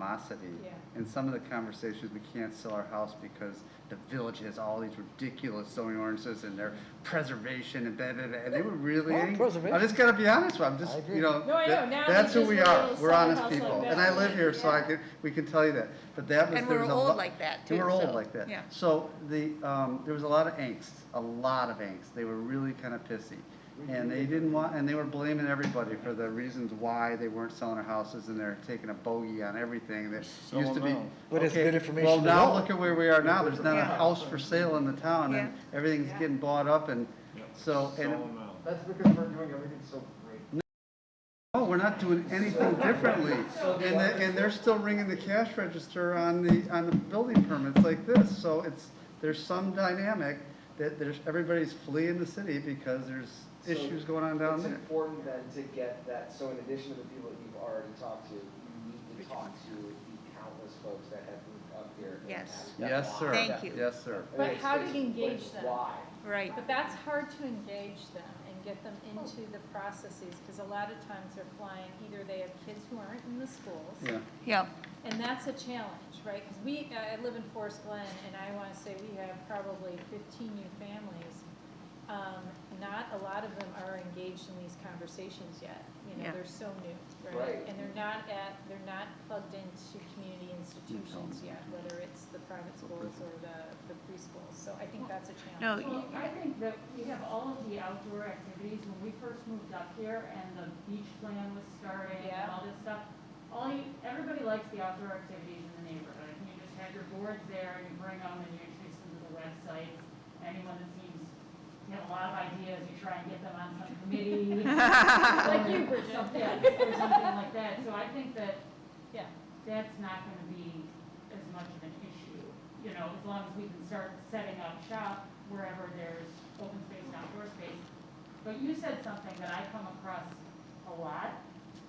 animosity. Yeah. And some of the conversations, we can't sell our house because the village has all these ridiculous zoning ordinances and their preservation and blah, blah, blah. And they were really, Well, angry. preservation. I'm just gonna be honest with you, I'm I just, agree. you know. No, I know. that- Now we That's who just we have a are. little We're honest side people. hustle And I about live it. here, so I Yeah. can, we can tell you that. But that was, And there we're was a old lot- like that, and too, we're old so, like that. yeah. So the, um, there was a lot of angst, a lot of angst. They were really kind of pissy. And they didn't want, and they were blaming everybody for the reasons why they weren't selling their houses and they're taking a bogey on everything that Sell used to be. them now. But it's Okay, good information Well, to now know. look at where we are now. There's not a Yeah. house for sale in the town and everything's getting bought up and Yep. so, Sell and. them out. That's because we're doing everything so great. No, Oh, we're not doing anything differently. And, the- and they're still ringing the cash register on the, on the building permits like this. So it's, there's some dynamic that there's, everybody's fleeing the city because there's So issues going on down there. It's important then to get that, so in addition to the people that you've already talked to, you need to talk to the countless folks that have moved up here. and Yes. have that Yes, sir. why. Thank you. Yes, sir. And But it's- how do it's you engage like them? Why? Right. But that's hard to engage them and get them into the processes, because a lot of times they're flying, either they have kids who aren't in the schools, Yeah. Yep. and that's a challenge, right? Because we, uh, I I live in Forest Glen, and I want to say we have probably fifteen new families. Um, Not a lot of them are engaged in these conversations yet, you know, Yeah. they're so new, right? Right. And they're not at, they're not plugged into community institutions yet, whether it's the private schools or the, the preschools, so I think that's a No, challenge. Well, I think that we have all of the outdoor activities, when we first moved up here and the beach plan was starting and Yeah. all this stuff, all you, everybody likes the outdoor activities in the neighborhood, and you just have your boards there, and you bring them, and you introduce them to the websites. Anyone that seems to have a lot of ideas, you try and get them on some committee. Like you, Or Bridget. something, or something like that, so I think that Yeah. that's not gonna be as much of an issue, you know, as long as we can start setting up shop wherever there's open space and outdoor space. But you said something that I come across a lot,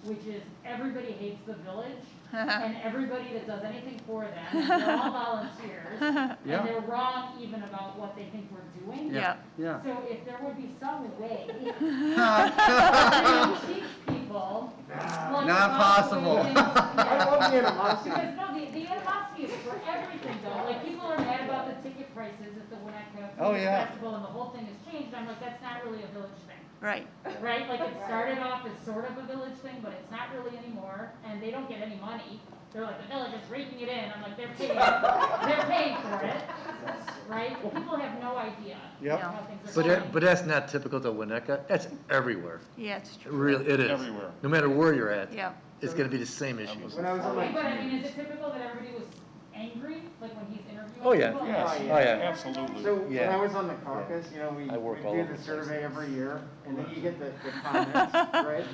which is everybody hates the village, and everybody that does anything for them, and they're all volunteers, Yeah. and they're wrong even about what they think we're doing. Yeah. Yeah. So if there would be some way Yeah. to teach people. what the Not possible possible. things- yeah. I love the animosity. Because no, the, the animosity is for everything though, like people are mad about the ticket prices at the Winnetka Oh, Food yeah. Festival and the whole thing has changed, I'm like, that's not really a village thing, Right. right? Like it started off as sort of a village thing, but it's not really anymore, and they don't get any money. They're like, the village is raking it in, I'm like, they're paying, they're paying for it, right? People have no idea Yep. how things But, are going. that- but that's not typical to Winnetka, that's everywhere, Yeah, it's It true. really, it is. Everywhere. No matter where you're at, Yeah. it's gonna be the same issue. was- When I was on Okay, but I my, mean, is it typical that everybody was angry, like when he's interviewing? Oh, yeah. people? Yes, Oh, oh, yeah. yeah, absolutely. so when Yeah. I was on the caucus, you know, we, I work all we do over the the survey every year, and then you get the, the comments, right?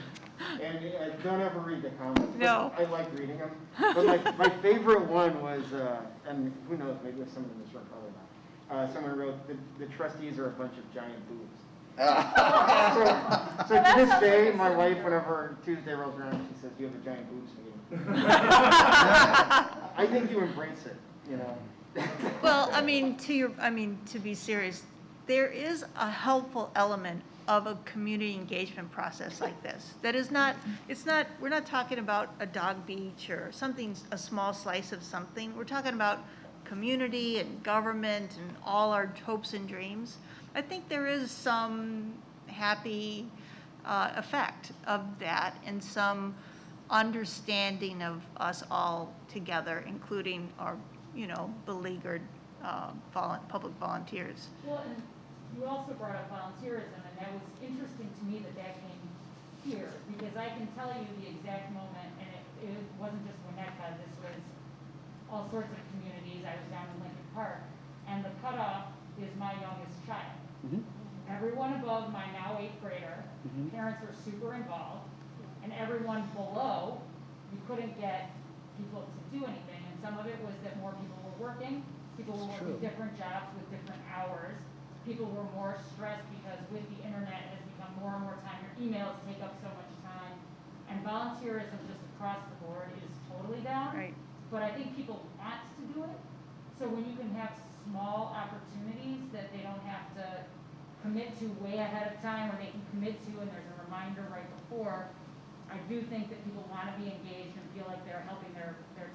And I don't ever read the comments. but No. I like reading them. But my, my favorite one was, uh, and who knows, maybe there's someone in this room, probably not. Uh, someone wrote, the, the trustees are a bunch of giant boobs. So so to this day, my wife, whenever Tuesday rolls around, she says, you have a giant boobs meeting. I think you embrace it, you know? Well, I mean, to your, I mean, to be serious, there is a helpful element of a community engagement process like this. That is not, it's not, we're not talking about a dog beach or something, a small slice of something. We're talking about community and government and all our hopes and dreams. I think there is some happy uh, effect of that and some understanding of us all together, including our, you know, beleaguered uh, volun, public volunteers. Well, and you also brought up volunteerism, and that was interesting to me that that came here, because I can tell you the exact moment, and it, it wasn't just Winnetka, this was all sorts of communities, I was down in Lincoln Park, and the cutoff is my youngest child. Mhm. Everyone above my now eighth grader, Mhm. parents were super involved, and everyone below, you couldn't get people to do anything, and some of it was that more people were working, people were working different jobs with different hours, people were more stressed because with the internet, it has become more and more time, your emails take up so much time, and volunteerism just across the board is totally down. Right. But I think people want to do it, so when you can have small opportunities that they don't have to commit to way ahead of time, or they can commit to and there's a reminder right before, I do think that people wanna be engaged and feel like they're helping their, their